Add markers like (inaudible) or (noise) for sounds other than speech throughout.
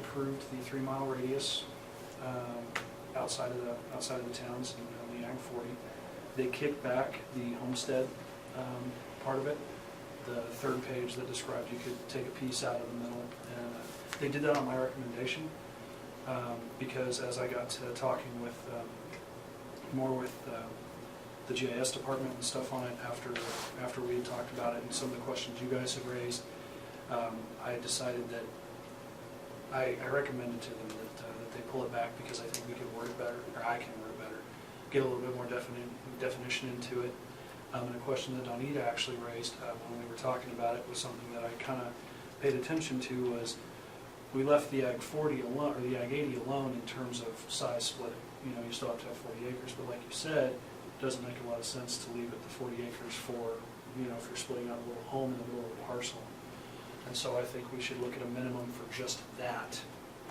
approved the three-mile radius um, outside of the, outside of the towns and on the Ag 40. They kicked back the homestead um, part of it, the third page that described you could take a piece out of the middle. And uh, they did that on my recommendation, um, because as I got to talking with, um, more with uh, the GIS department and stuff on it after, after we had talked about it and some of the questions you guys have raised, um, I decided that, I, I recommended to them that, uh, that they pull it back because I think we could word it better, or I can word it better, get a little bit more definite, definition into it. Um, and a question that Donita actually raised, uh, when we were talking about it was something that I kinda paid attention to was, we left the Ag forty alone, or the Ag eighty alone in terms of size splitting. You know, you still have to have forty acres, but like you said, it doesn't make a lot of sense to leave it the forty acres for, you know, if you're splitting out a little home in the middle of a parcel. And so I think we should look at a minimum for just that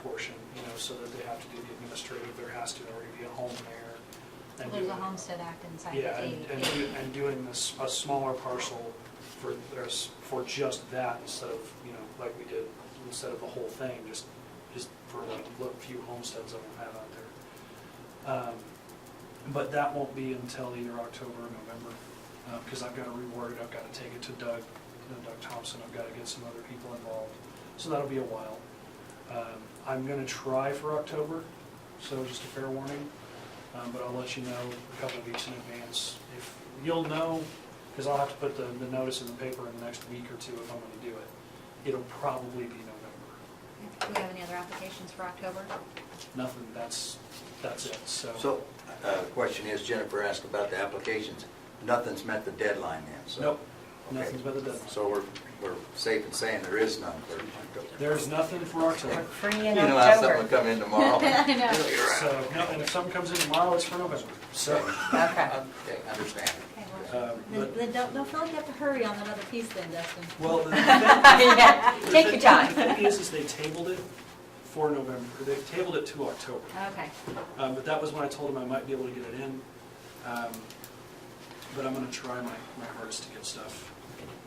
portion, you know, so that they have to do the administrative, there has to already be a home there. and There's a doing- homestead act inside Yeah, the and, eighty. and do- and doing this, a smaller parcel for, there's, for just that instead of, you know, like we did, instead of the whole thing, just, just for like, look, few homesteads that we have out there. Um, But that won't be until either October or November, uh, because I've got to reword it, I've got to take it to Doug, you know, Doug Thompson, I've got to get some other people involved. So that'll be a while. Um, I'm going to try for October, so just a fair warning. Um, but I'll let you know a couple of weeks in advance. If, you'll know, because I'll have to put the, the notice in the paper in the next week or two if I'm gonna do it. It'll probably be November. Do we have any other applications for October? Nothing, that's, that's it, so. So, uh, the question is, Jennifer asked about the applications. Nothing's met the deadline then, so. Nope, Okay. nothing's but the deadline. So we're, we're safe in saying there is none for October. There's nothing for We're October. free You in know how someone October. come in (laughs) tomorrow. I know. You're right. So, no, and if something comes in tomorrow, it's for November, so. Okay. Okay, understand. Okay, Uh, well, Then but- then don't, don't feel like you have to hurry on that other piece then, Dustin. (laughs) Well, the thing, (laughs) Yeah, Take your the (laughs) time. thing is, is they tabled it for November, they tabled it to October. Okay, Um, but that was when I told him I might be able to get it in. Um, but I'm gonna try my, my hardest to get stuff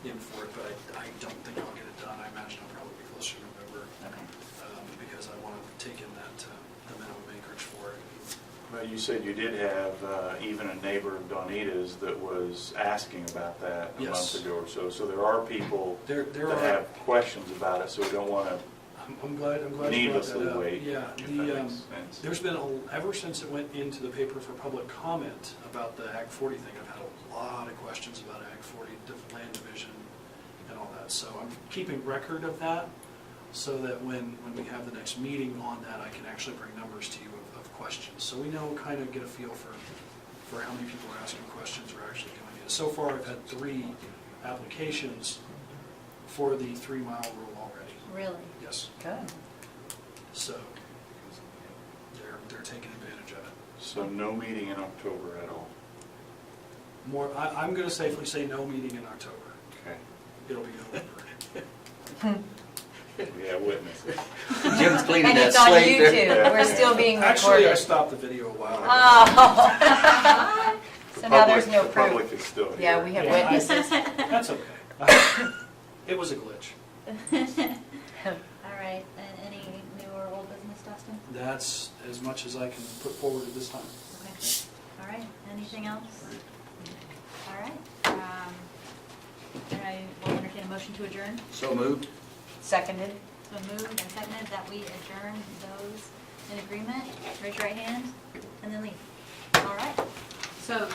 in for it, but I, I don't think I'll get it done. I imagine I'll probably be closer to November, okay. um, because I wanna take in that, uh, the minimum acreage for it. Well, you said you did have uh, even a neighbor of Donita's that was asking about that a Yes. month ago or so. So there are people There, that there are, have questions about it, so we don't want to I'm, I'm glad, I'm glad you brought needlessly that up. wait. Yeah, if that the, makes um, sense. There's been, a ever since it went into the paper for public comment about the Act 40 thing, I've had a lot of questions about Act 40, diff- land division and all that. So I'm keeping record of that so that when, when we have the next meeting on that, I can actually bring numbers to you of, of questions. So we know, kind of get a feel for, for how many people are asking questions or actually doing it. So far, I've had three applications for the three-mile rule already. Really? Yes, Good. so they're, they're taking advantage of it. So no meeting in October at all. More, I, I'm gonna safely say no meeting in October. Okay. It'll be November. We have witnesses. Jim's cleaning And that it's on slate there. YouTube. We're still (laughs) (laughs) being Actually, I recorded. stopped the video a while ago. (laughs) Oh. (laughs) So now there's Public- no the proof. Public is still here. Yeah, we have Yeah. witnesses. That's okay. It was a glitch. (laughs) All right, and any new or old business, Dustin? That's as much as I can put forward at this time. Okay. All right, anything else? All right. um, Then I will entertain a motion to adjourn. So moved? Seconded. So moved and seconded that we adjourn those in agreement. Raise your right hand and then leave. All right. So